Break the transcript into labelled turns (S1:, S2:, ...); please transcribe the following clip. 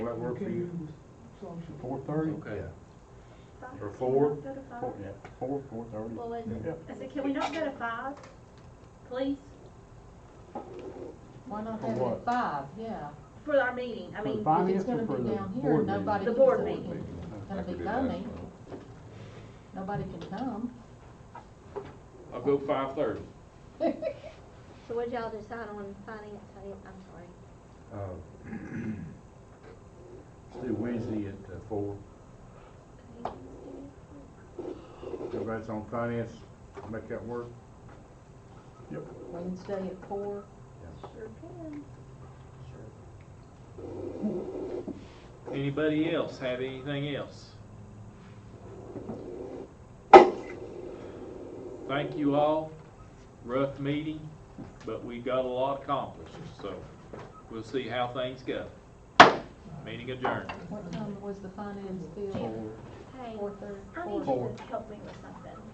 S1: that work for you? Four thirty?
S2: Okay.
S1: Or four?
S3: Go to five.
S1: Four, yeah, four, four thirty.
S3: Well, is it,
S1: Yeah.
S3: I said, can we not go to five, please,
S4: Why not
S1: For
S4: have it
S1: what?
S4: at five, yeah?
S3: for our meeting? I
S1: For
S3: mean,
S1: finance
S4: it's gonna
S1: or for
S4: be
S1: the
S4: down here,
S1: board
S4: nobody
S1: meeting?
S3: the board
S4: Board
S3: meeting.
S4: It's gonna be lonely, nobody can come.
S2: I'll go five thirty.
S3: So what'd y'all decide on finance? I didn't, I'm sorry.
S1: Uh,
S5: Let's do Wednesday at uh, four. Everybody's on finance, make that work.
S4: Wednesday at four,
S3: Sure can.
S2: Anybody else have anything else? Thank you all. Rough meeting, but we got a lot accomplished, so we'll see how things go. Meeting adjourned.
S4: what time was the finance bill?
S3: Hey,
S4: Four thirty?
S3: I need you to help me with something.